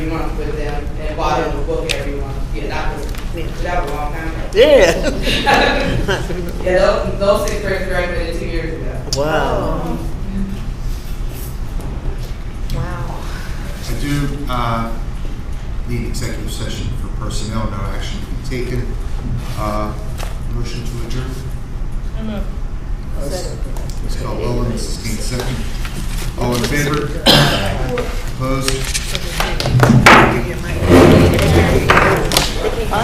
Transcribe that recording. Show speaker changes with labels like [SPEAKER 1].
[SPEAKER 1] month with them and bought them a book every month. Yeah, that was, that was a long time ago.
[SPEAKER 2] Yeah.
[SPEAKER 1] Yeah, those, those sixth graders graduated two years ago.
[SPEAKER 2] Wow.
[SPEAKER 3] Wow.
[SPEAKER 4] I do uh, need executive session for personnel, no action to be taken. Uh, Motion to adjourn. Ms. Caldwell and Mrs. King, second. All in favor? Opposed?
[SPEAKER 3] Give you a mic.